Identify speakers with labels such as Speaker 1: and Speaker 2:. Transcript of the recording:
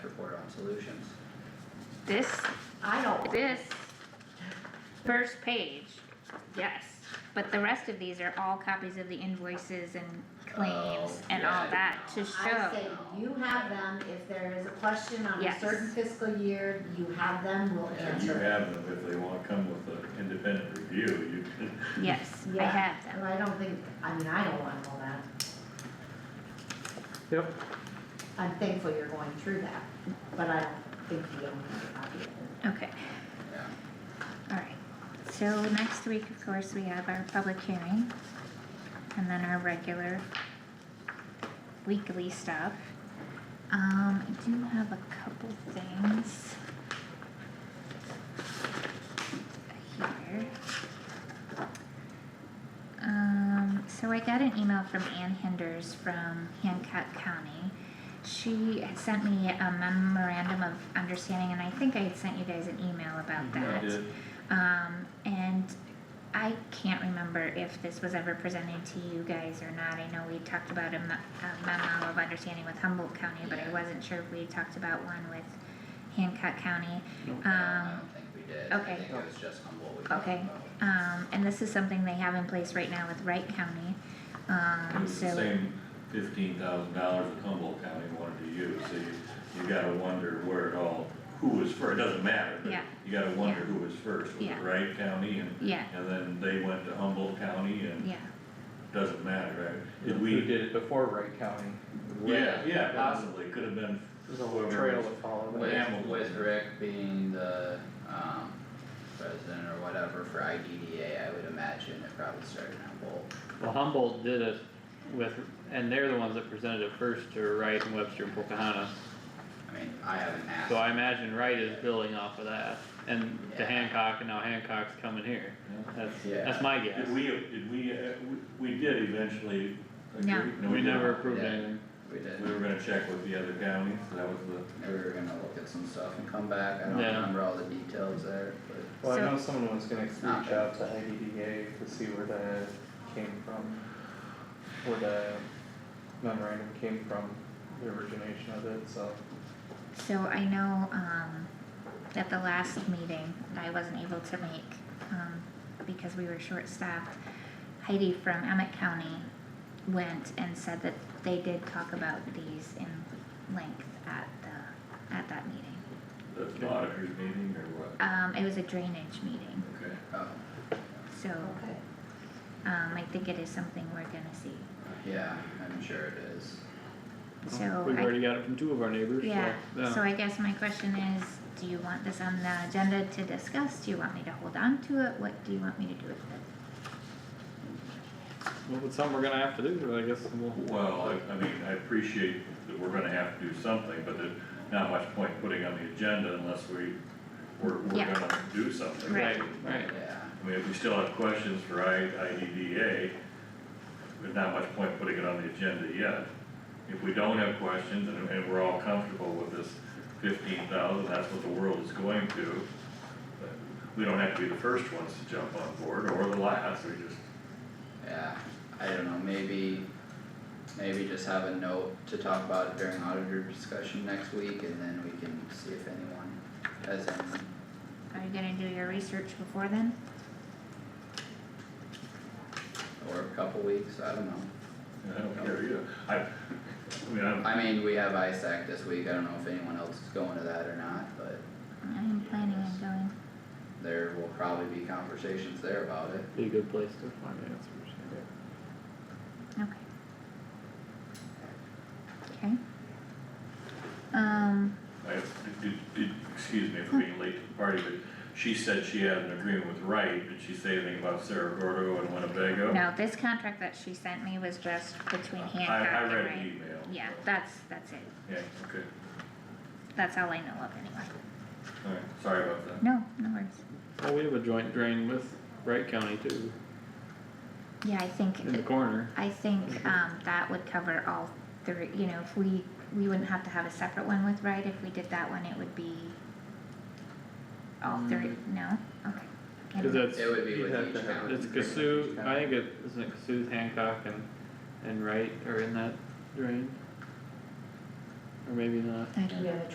Speaker 1: solutions.
Speaker 2: This, I know, this first page, yes, but the rest of these are all copies of the invoices and claims
Speaker 1: Oh,
Speaker 2: and all
Speaker 1: yeah.
Speaker 2: that to
Speaker 3: I
Speaker 2: show.
Speaker 3: say you have them, if there is a question on a
Speaker 2: Yes.
Speaker 3: certain fiscal year, you have them, we'll
Speaker 4: And you
Speaker 3: answer. it.
Speaker 4: have them, if they wanna come with an independent review, you can,
Speaker 2: Yes, I
Speaker 3: Yeah.
Speaker 2: have them.
Speaker 3: And I don't think, I mean, I don't want all that,
Speaker 5: Yep,
Speaker 3: I'm thankful you're going through that, but I don't think you don't have a copy of it.
Speaker 2: Okay. Alright, so next week, of course, we have our public hearing. And then our regular weekly stuff. Um, I do have a couple things. Here. Um, so I got an email from Ann Hinders from Hancock County. She had sent me a memorandum of understanding, and I think I had sent you guys an email about
Speaker 4: I
Speaker 2: that.
Speaker 4: did,
Speaker 2: Um, and I can't remember if this was ever presented to you guys or not. I know we talked about a me- a memo of understanding with Humboldt County, but I
Speaker 1: Yeah.
Speaker 2: wasn't sure if we talked about one with Hancock County.
Speaker 1: I don't- I
Speaker 2: Um,
Speaker 1: don't think we did, I
Speaker 2: okay.
Speaker 1: think it was just on what we talked
Speaker 2: Okay.
Speaker 1: about.
Speaker 2: Um, and this is something they have in place right now with Wright County.
Speaker 4: it
Speaker 2: Um,
Speaker 4: was the
Speaker 2: so,
Speaker 4: same fifteen thousand dollars that Humboldt County wanted to use, so you, you gotta wonder where it all, who was first, it doesn't matter, but
Speaker 2: Yeah.
Speaker 4: you gotta wonder who was first, was it
Speaker 2: Yeah.
Speaker 4: Wright County and,
Speaker 2: yeah,
Speaker 4: and then they went to Humboldt County and
Speaker 2: yeah,
Speaker 4: doesn't matter, right? Did
Speaker 5: we
Speaker 4: we,
Speaker 5: did it before Wright County,
Speaker 4: yeah,
Speaker 1: Way-
Speaker 4: yeah, possibly, could have been
Speaker 5: there's a whole trail to follow there.
Speaker 4: Yeah.
Speaker 1: With, with Rick being the, um, president or whatever for IDDA, I would imagine it probably started on both.
Speaker 6: Well, Humboldt did it with, and they're the ones that presented it first to Wright and Webster and Pocahontas.
Speaker 1: I mean, I haven't asked.
Speaker 6: So I imagine Wright is building off of that and to
Speaker 1: Yeah.
Speaker 6: Hancock and now Hancock's coming here. That's,
Speaker 1: Yeah.
Speaker 6: that's my guess.
Speaker 4: Did we, did we, uh, we, we did eventually agree?
Speaker 2: No.
Speaker 6: We
Speaker 4: didn't.
Speaker 6: never approved
Speaker 1: Yeah.
Speaker 6: anything.
Speaker 1: We did,
Speaker 4: We were gonna check with the other counties, that was the,
Speaker 1: we were gonna look at some stuff and come back, I don't
Speaker 6: Yeah.
Speaker 1: remember all the details there, but,
Speaker 5: Well, I
Speaker 2: So-
Speaker 5: know someone was gonna reach out to IDDA to see where that came from, where the memorandum came from, the origination of it, so.
Speaker 2: so I know, um, at the last meeting, I wasn't able to make, um, because we were short-staffed. Heidi from Emmett County went and said that they did talk about these in length at the, at that meeting.
Speaker 4: the auditors meeting or what?
Speaker 2: Um, it was a drainage meeting,
Speaker 4: Okay.
Speaker 1: oh,
Speaker 2: so,
Speaker 3: Okay.
Speaker 2: um, I think it is something we're gonna see,
Speaker 1: yeah, I'm sure it is.
Speaker 2: so I.
Speaker 6: Oh, We've already got it from two of our neighbors, so.
Speaker 2: Yeah, so I guess my question is, do you want this on the agenda to discuss? Do you want me to hold on to it? What do you want me to do with it?
Speaker 6: Well, it's something we're gonna have to do, but I guess we'll,
Speaker 4: Well, I, I mean, I appreciate that we're gonna have to do something, but there's not much point putting on the agenda unless we, we're, we're
Speaker 2: Yeah.
Speaker 4: gonna do something.
Speaker 2: Right.
Speaker 6: right, right.
Speaker 1: Yeah,
Speaker 4: I mean, if we still have questions for I, E IDDA, there's not much point putting it on the agenda yet. If we don't have questions and, and we're all comfortable with this fifteen thousand, that's what the world is going to, but we don't have to be the first ones to jump on board or the last, we just,
Speaker 1: yeah, I don't know, maybe, maybe just have a note to talk about it during auditor discussion next week, and then we can see if anyone has any.
Speaker 2: Are you gonna do your research before then?
Speaker 1: Or a couple weeks, I don't know,
Speaker 4: I don't care either. I, I mean, I'm,
Speaker 1: I mean, we have ISAC this week, I don't know if anyone else is going to that or not, but
Speaker 2: I'm planning on going.
Speaker 1: there will probably be conversations there about it.
Speaker 6: Be a good place to find answers.
Speaker 2: Okay. Okay. Um,
Speaker 4: I, did, did, excuse me for being late to the party, but she said she had an agreement with Wright, did she say anything about Cerro Gordo and Winnebago?
Speaker 2: no, this contract that she sent me was just between
Speaker 4: I-
Speaker 2: Hancock and
Speaker 4: I read the
Speaker 2: Ray.
Speaker 4: email.
Speaker 2: Yeah, that's, that's it.
Speaker 4: Yeah, okay,
Speaker 2: That's all I know of anyway.
Speaker 4: alright, sorry about that.
Speaker 2: No, no worries.
Speaker 6: Well, we have a joint drain with Wright County too,
Speaker 2: Yeah, I think
Speaker 6: in the corner.
Speaker 2: I think, um, that would cover all three, you know, if we, we wouldn't have to have a separate one with Wright, if we did that one, it would be all three, no, okay.
Speaker 6: Cause
Speaker 2: Never-
Speaker 6: that's,
Speaker 1: It would be
Speaker 5: You'd
Speaker 1: with
Speaker 5: have
Speaker 1: each
Speaker 5: to have-
Speaker 1: county.
Speaker 6: it's Cassuth, I think it, isn't it Cassuth, Hancock and, and Wright are in that drain? Or maybe not.
Speaker 2: I don't
Speaker 3: We have a